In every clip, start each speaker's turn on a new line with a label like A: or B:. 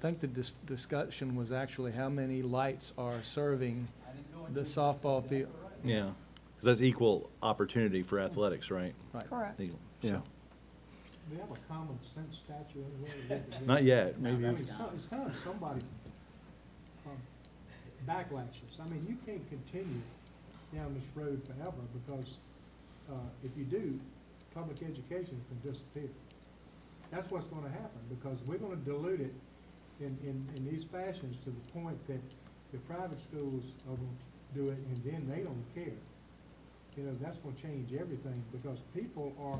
A: think the dis- discussion was actually how many lights are serving the softball field.
B: Yeah, because that's equal opportunity for athletics, right?
A: Right.
B: I
C: Correct.
B: think-
D: Yeah.
E: We have a common sense statue anywhere. we live.
B: Not yet,
E: I mean,
B: maybe,
E: it's so- It's kind of somebody um, backlashes. I mean, you can't continue down this road forever because uh, if you do, public education can disappear. That's what's going to happen because we're going to dilute it in, in, in these fashions to the point that the private schools are going to do it and then they don't care. You know, that's going to change everything because people are,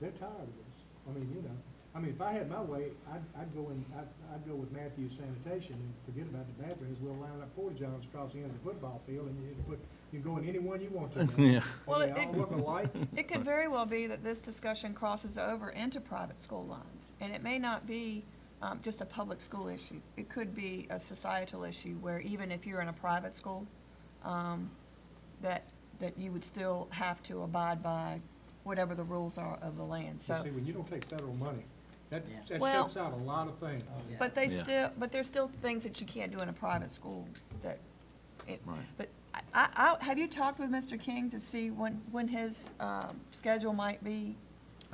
E: they're tired of this. I mean, you know, I mean, if I had my way, I'd, I'd go in, I'd, I'd go with Matthews Sanitation and forget about the bathrooms. We'll line up porta johns across the end of the football field and you can put, you can go in any one you want to. now.
B: yeah,
C: Well,
E: And
C: it-
E: they all
C: it-
E: look alike.
C: It could very well be that this discussion crosses over into private school lines, and it may not be um, just a public school issue. It could be a societal issue where even if you're in a private school, um, that, that you would still have to abide by whatever the rules are of the land,
E: You
C: so.
E: See, when you don't take federal money, that,
F: Yeah.
E: that
C: Well-
E: shuts out a lot of things.
G: Oh,
C: But they
B: Yeah.
C: still, but there's still things that you can't do in a private school that, it-
B: right.
C: but I, I, I- have you talked with Mr. King to see when, when his um, schedule might be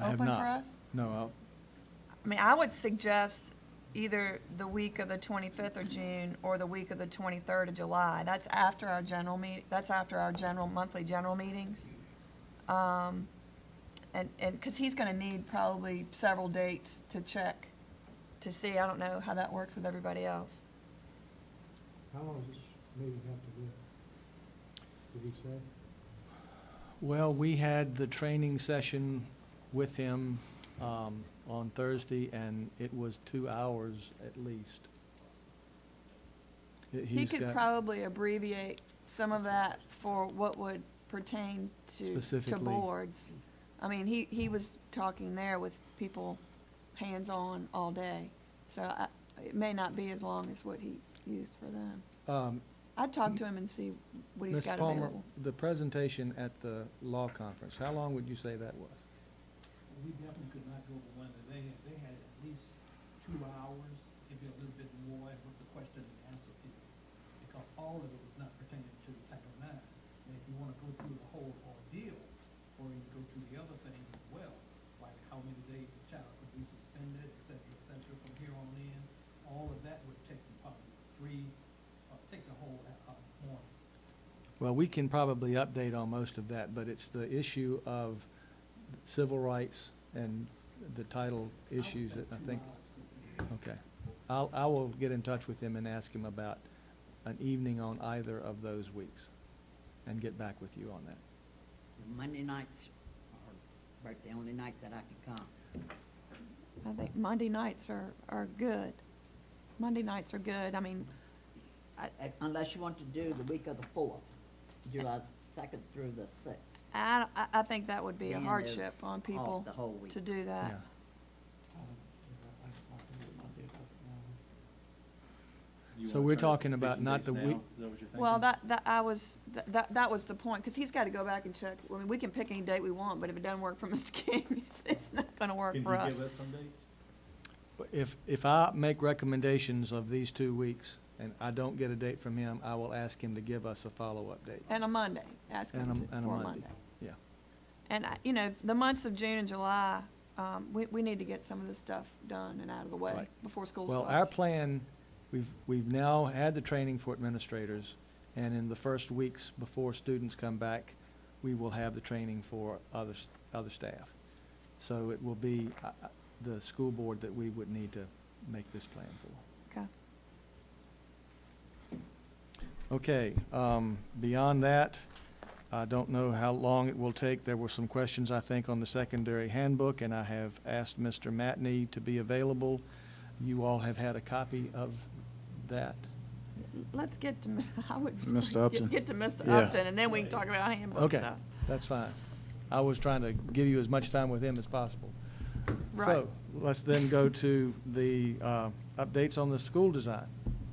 A: I have
C: open for us?
A: not. No, uh, I'll-
C: I mean, I would suggest either the week of the 25th of June or the week of the 23rd of July. That's after our general meet, that's after our general, monthly general meetings. Um, And, and, because he's going to need probably several dates to check, to see, I don't know how that works with everybody else.
E: How long does this meeting have to be? Did he say?
A: Well, we had the training session with him um, on Thursday, and it was two hours at least.
C: He
A: He's
C: could
A: got-
C: probably abbreviate some of that for what would pertain to, to
A: Specifically.
C: boards. I mean, he, he was talking there with people hands-on all day, so I, it may not be as long as what he used for them.
A: um,
C: I'd talk to him and see what he's
A: Mr.
C: got
A: Palmer,
C: available.
A: the presentation at the law conference, how long would you say that was?
G: We definitely could not go over one that they, they had at least two hours, maybe a little bit more, with the question and answer period. Because all of it was not pertaining to Title IX. And if you wanna go through the whole ordeal, or you go through the other things as well, like how many days a child could be suspended, et cetera, et cetera, from here on in, all of that would take you probably three, uh, take the whole, uh, morning.
A: Well, we can probably update on most of that, but it's the issue of civil rights and the title issues that I think, okay. I'll, I will get in touch with him and ask him about an evening on either of those weeks and get back with you on that.
F: Monday nights are about the only night that I can come.
C: I think Monday nights are, are good. Monday nights are good, I mean,
F: I- I- Unless you want to do the week of the fourth, July second through the sixth.
C: I, I, I think that would be a
F: Then
C: hardship
F: it's
C: on
F: off
C: people
F: The whole week.
C: to do that.
A: Yeah.
B: You
A: So
B: wanna
A: we're
B: try to
A: talking
B: pick
A: about
B: some
A: not
B: dates
A: the
B: now?
A: week-
B: Is that what you're
C: Well,
B: thinking?
C: that, that, I was, that- that, that was the point, because he's got to go back and check. I mean, we can pick any date we want, but if it doesn't work for Mr. King, it's, it's not going to work for
B: Can you
C: us.
B: give us some dates?
A: But If, if I make recommendations of these two weeks and I don't get a date from him, I will ask him to give us a follow-up date.
C: And a Monday, ask him
A: And a-
C: to-
A: and
C: for
A: a
C: a
A: Monday,
C: Monday.
A: yeah.
C: And I, you know, the months of June and July, um, we, we need to get some of this stuff done and out of the way
A: Right.
C: before school
A: Well,
C: starts.
A: our plan, we've, we've now had the training for administrators, and in the first weeks before students come back, we will have the training for other, s- other staff. So it will be uh, uh, the school board that we would need to make this plan for.
C: Okay.
A: Okay, um, beyond that, I don't know how long it will take. There were some questions, I think, on the secondary handbook, and I have asked Mr. Matney to be available. You all have had a copy of that.
C: Let's get to, I would.
D: Mr.
C: get-
D: Upton?
C: Get to Mr.
D: Yeah.
C: Upton, and then we can talk about handbook
A: Okay.
C: stuff.
A: That's fine. I was trying to give you as much time with him as possible.
C: Right.
A: So, let's then go to the uh, updates on the school design.